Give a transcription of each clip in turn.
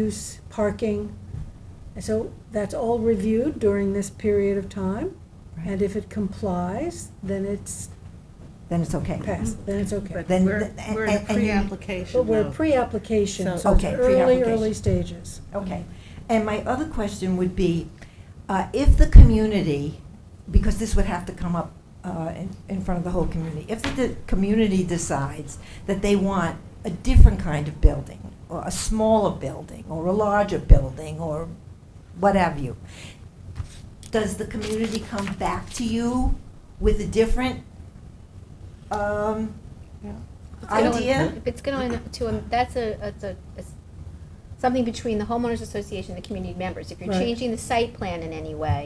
use, parking. And So that's all reviewed during this period of time. And if it complies, then it's Then it's okay. passed, then it's okay. But Then we're, the- we're in a and- and- But pre-application we're now. pre-application, so So- it's Okay, early, pre-application. early stages. Mm-hmm. Okay. And my other question would be, uh, if the community, because this would have to come up uh, in- in front of the whole community, if the community decides that they want a different kind of building, or a smaller building, or a larger building, or what have you, does the community come back to you with a different um, It's gonna- idea? If it's going to, a- that's a, that's a, it's something between the homeowners association and the community members. If you're Right. changing the site plan in any way,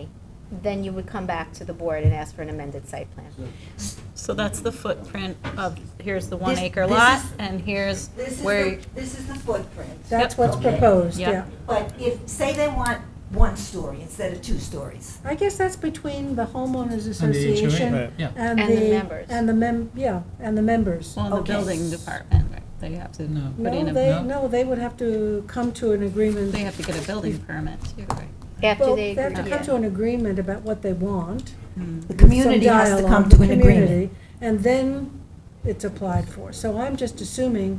then you would come back to the board and ask for an amended site plan. So that's the footprint of, here's the one This- acre this lot, is- and here's This is where, the- This is the footprint. That's Yep. what's Okay. proposed, Yep. yeah. But if, say they want one story instead of two stories. I guess that's between the homeowners And the HOA, association right. Yeah. and the. And the members. And the mem, yeah, and the members. well, the Okay. building department, right, they have to No. put in No, a, they, no. no, they would have to come to an agreement. they have to get a building permit too, right? After Well, they have to agree. come to an agreement about what they want. The some community has to dialogue, come the to an agreement. community, And then it's applied for. So I'm just assuming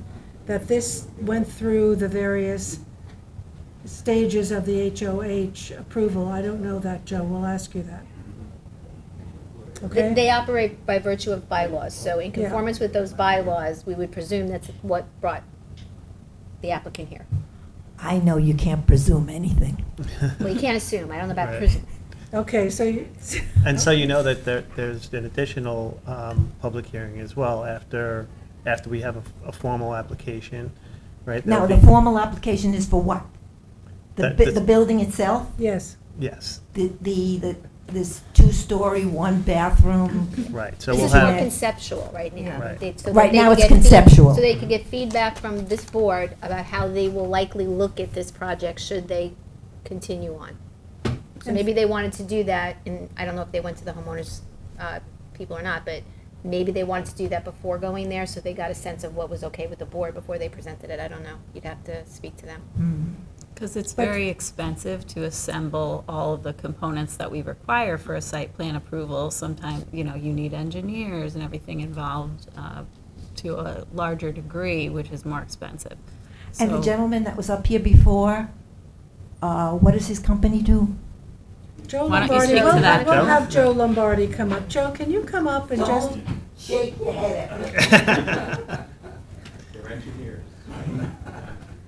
that this went through the various stages of the HOH approval. I don't know that, Joe. We'll ask you that. They, Okay? they operate by virtue of bylaws, so in Yeah. conformance with those bylaws, we would presume that's what brought the applicant here. I know you can't presume anything. Well, you can't assume, I don't know about Right. presume. Okay, so you. And so you know that there, there's an additional um, public hearing as well after, after we have a- a formal application, right? Now, There'll the be- formal application is for what? The, That- bu- that- the building itself? Yes, Yes, The, the, the- this two-story, one bathroom? right, so This we'll is more have, conceptual right now. Right. They- so that Right they now can it's get feed- conceptual. So they could get feedback from this board about how they will likely look at this project should they continue on. So And- maybe they wanted to do that, and I don't know if they went to the homeowners, uh, people or not, but maybe they wanted to do that before going there, so they got a sense of what was okay with the board before they presented it. I don't know. You'd have to speak to them. Because it's very expensive to assemble all of the components that we require for a site plan approval. Sometimes, you know, you need engineers and everything involved uh, to a larger degree, which is more expensive. And the So- gentleman that was up here before, uh, what does his company do? Joe Why don't you Lombardi, speak to we'll, that, we'll Joe? have Joe Lombardi come up. Joe, can you come up and just, shake your head at me. They're engineers.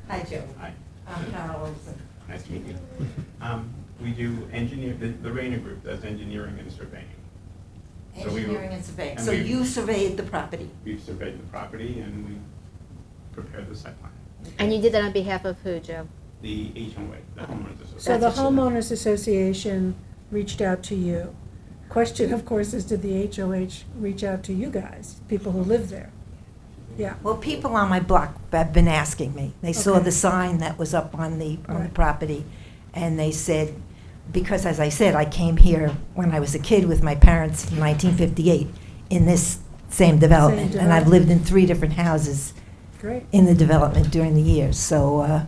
Hi, Joe. Hi, I'm Carol Olson. nice to meet you. Um, We do engineer, the the Rayner Group does engineering and surveying. So we- Engineering and surveying. and So we- you surveyed the property? We've surveyed the property and we prepared the site plan. And you did that on behalf of who, Joe? The HOA, the homeowners association. so the homeowners association reached out to you. Question, of course, is did the HOH reach out to you guys, people who live there? Yeah, Well, people on my block have been asking me. They saw Okay. the sign that was up on the, on the Right. property, and they said, because as I said, I came here when I was a kid with my parents in 1958 in this same development, and I've lived in three different houses great. in the development during the years. So uh,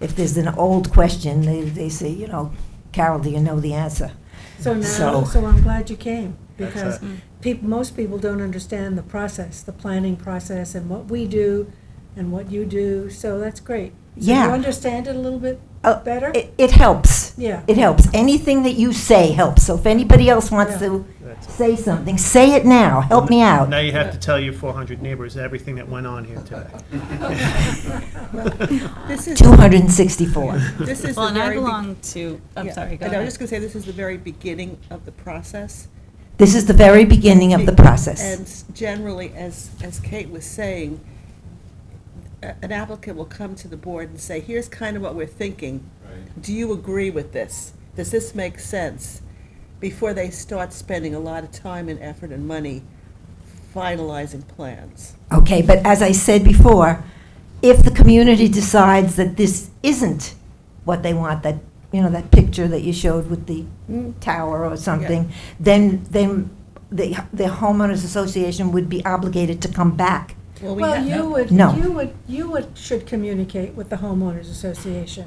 if there's an old question, they, they say, you know, Carol, do you know the answer? So now, So- so I'm glad you came, because That's Mm. peop most people don't understand the process, the planning process, and what we do, and what you do, so that's great. So Yeah. You understand it a little bit Oh, better? It, it helps. Yeah. It helps. Anything that you say helps. So if anybody else wants Yeah. to That's it. say something, say it now. Help me out. now you have to tell your 400 neighbors everything that went on here today. This is, 264. this is Well, the and I very. be- belong to, I'm yeah, sorry, go and I was ahead. just gonna say, this is the very beginning of the process. This is the very beginning of the And process. s- generally, as, as Kate was saying, a- an applicant will come to the board and say, here's kind of what we're thinking. Right. Do you agree with this? Does this make sense? Before they start spending a lot of time and effort and money finalizing plans. Okay, but as I said before, if the community decides that this isn't what they want, that, you know, that picture that you showed with the Mm. tower or something, then, then the, the homeowners association would be obligated to come back Well, we Well, have- you would, No. you would, you would, should communicate with the homeowners association.